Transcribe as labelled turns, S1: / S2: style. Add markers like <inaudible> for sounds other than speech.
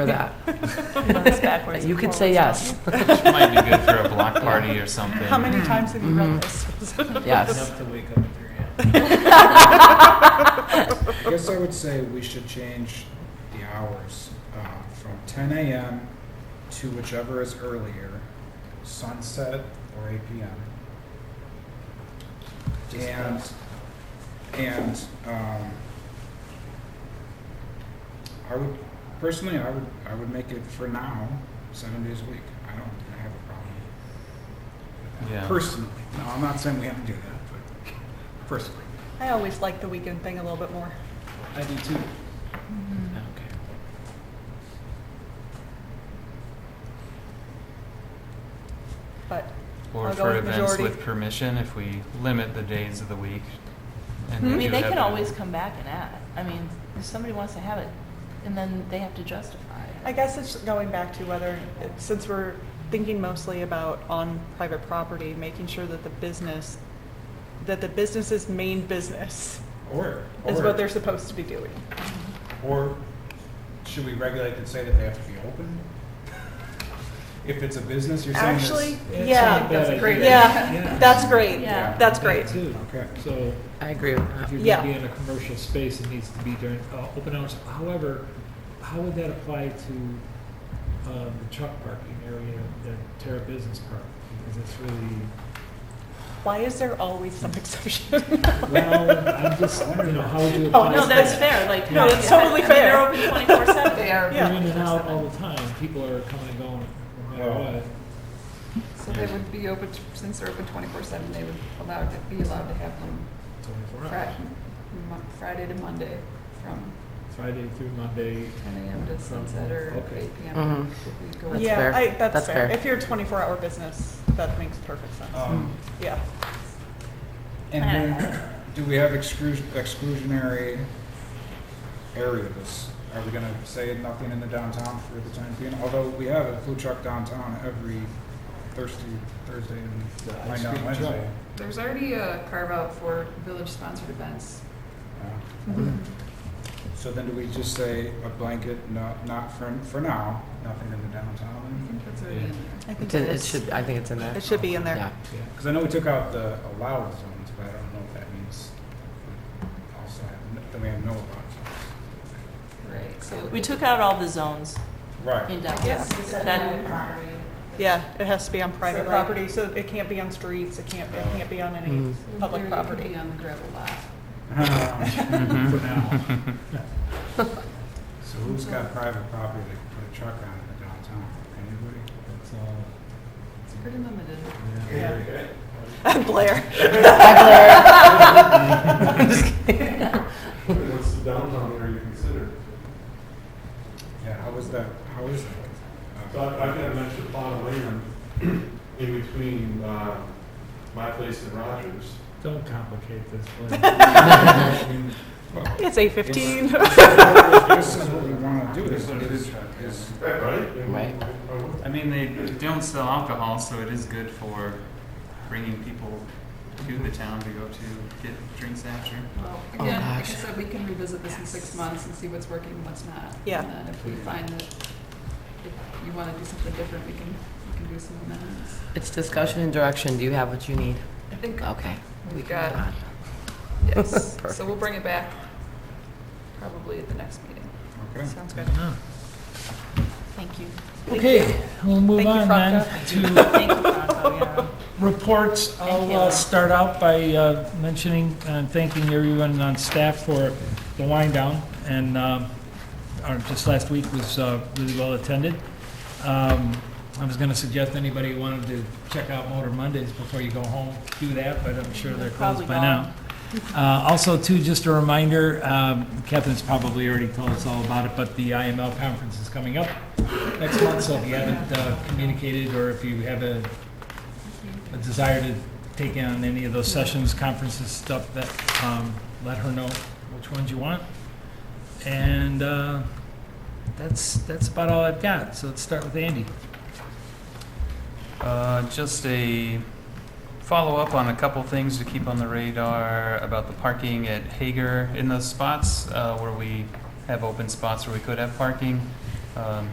S1: for that.
S2: It's backwards
S1: You
S2: and
S1: could say
S2: forwards.
S1: yes,
S3: Might be good for a block party or something.
S2: How many times have you read
S1: Mhm.
S2: this?
S1: yes.
S4: to wake up with your hand. I guess I would say we should change the hours uh, from 10 a.m. to whichever is earlier, sunset or 8 p.m. And, and, um, I would, personally, I would, I would make it for now, seven days a week. I don't I have a problem. with that.
S3: Yeah.
S4: Personally, no, I'm not saying we have to do that, but personally.
S2: <laughs> I always like the weekend thing a little bit more.
S4: I do too.
S3: Okay.
S2: But
S3: Or
S2: I'll go
S3: for
S2: with
S3: events
S2: majority.
S3: with permission, if we limit the days of the week. and we
S5: Hmm? I mean,
S3: do
S5: they
S3: have
S5: can
S3: a-
S5: always come back and add. I mean, if somebody wants to have it, and then they have to justify it.
S2: I guess it's going back to whether, since we're thinking mostly about on private property, making sure that the business, that the business's main business
S4: Or,
S2: is what
S4: or,
S2: they're supposed to be doing.
S4: or should we regulate and say that they have to be open? If it's a business, you're saying this.
S2: Actually,
S6: That's
S2: yeah,
S6: not a bad
S2: that's great.
S6: idea.
S2: Yeah,
S6: Yeah.
S2: that's great.
S5: Yeah.
S2: That's great.
S6: That too.
S4: Okay.
S6: So
S1: I agree with
S6: if
S1: that.
S6: you're
S2: Yeah.
S6: gonna be in a commercial space, it needs to be during, uh, open hours. However, how would that apply to, um, the truck parking area, the Terra Business Park? Because it's really,
S2: Why is there always some <laughs> exception?
S6: well, I'm just, you know, how would you
S2: Oh,
S6: apply?
S5: No,
S6: to
S5: that's
S6: that?
S5: fair, like.
S6: No, that's
S2: totally
S5: I mean,
S2: fair.
S5: They're open twenty-four seven. They
S2: <laughs>
S5: are.
S2: Yeah.
S6: You're in and out all the time. People are coming and going, no matter
S4: Well,
S6: what.
S7: So they would be open, to- since they're open twenty-four seven, they would allowed, to be allowed to have them
S6: Twenty-four hours.
S7: Friday, Friday to Monday from
S6: Friday through Monday.
S7: ten AM to sunset or
S6: Okay.
S7: eight PM.
S1: Mhm.
S7: We go-
S1: That's
S2: Yeah,
S1: fair.
S2: I, that's
S1: That's
S2: fair.
S1: fair.
S2: If you're a twenty-four hour business, that makes perfect sense.
S6: Oh.
S4: Um,
S2: Yeah.
S4: and then, do we have exclu- exclusionary areas? Are we gonna say nothing in the downtown for the time being? Although we have a food truck downtown every Thursday, Thursday
S6: The
S4: and
S6: ice
S4: might not
S6: cream
S4: Wednesday.
S6: truck.
S7: There's already a carve out for village-sponsored events.
S4: Yeah. So then do we just say a blanket, no, not for, for now, nothing in the
S7: I
S4: downtown?
S7: think that's already in there.
S2: I think
S1: It's in-
S2: it
S1: It
S2: is.
S1: should, I think it's in there.
S2: It should be in
S1: Yeah.
S2: there.
S6: Yeah.
S4: Because I know we took out the allowed zones, but I don't know if that means also have, n- that we have no allowed zones.
S7: Right, so.
S5: We took out all the zones in
S4: Right. <laughs>
S5: downtown. That,
S7: property.
S2: Yeah, it has to be on private
S7: So, like-
S2: property, Mm-hmm. so it can't be on streets, it can't, it can't be on any
S1: Mm.
S2: public property.
S7: on the gravel lot.
S4: Um, For now. So who's got private property that can put a truck on in the downtown? Anybody?
S6: That's all.
S4: uh,
S7: It's pretty limited.
S2: Yeah. Blair.
S8: What's the downtown area considered?
S4: Yeah, how is that, how is that?
S8: So
S4: Uh,
S8: I- I've got an extra plot of land in between uh, my place and Rogers.
S6: Don't complicate this,
S2: <laughs>
S6: please.
S4: well,
S2: It's eight fifteen.
S4: This is what we want to do, is, is, is-
S8: Right?
S1: Right.
S8: And-
S3: <laughs> I mean, they don't sell alcohol, so it is good for bringing people to the town to go to get drinks after.
S7: Well,
S1: Oh,
S7: again, like I
S1: gosh.
S7: said, we can revisit this in six months and see what's working and what's not.
S2: Yeah.
S7: And then if we find that if you want to do something different, we can, we can do some amendments.
S1: It's discussion and direction. Do you have what you need?
S7: I think,
S1: Okay.
S7: We
S1: can
S7: got-
S1: move on.
S7: yes, so we'll
S1: Oh, Perfect.
S7: bring it back probably at the next meeting.
S4: okay.
S2: Sounds good.
S5: thank you.
S6: Okay, we'll move
S2: Thank you,
S6: on then to
S5: Thank you, Bronco, yeah.
S6: reports. I'll uh,
S5: you.
S6: start out by uh, mentioning and thanking everyone on staff for the wind down. And um, our, just last week was uh, really well attended. Um, I was going to suggest anybody who wanted to check out Motor Mondays before you go home, do that, but I'm sure they're
S5: Probably
S6: closed by
S5: gone.
S6: now. Uh, Also, too, just a reminder, um, Catherine's probably already told us all about it, but the IML conference is coming up next month, so if you haven't uh, communicated, or if you have a a desire to take in on any of those sessions, conferences, stuff, that, um, let her know which ones you want. And uh, that's, that's about all I've got, so let's start with Andy.
S3: Uh, just a follow up on a couple things to keep on the radar about the parking at Hager in those spots uh, where we have open spots where we could have parking. um,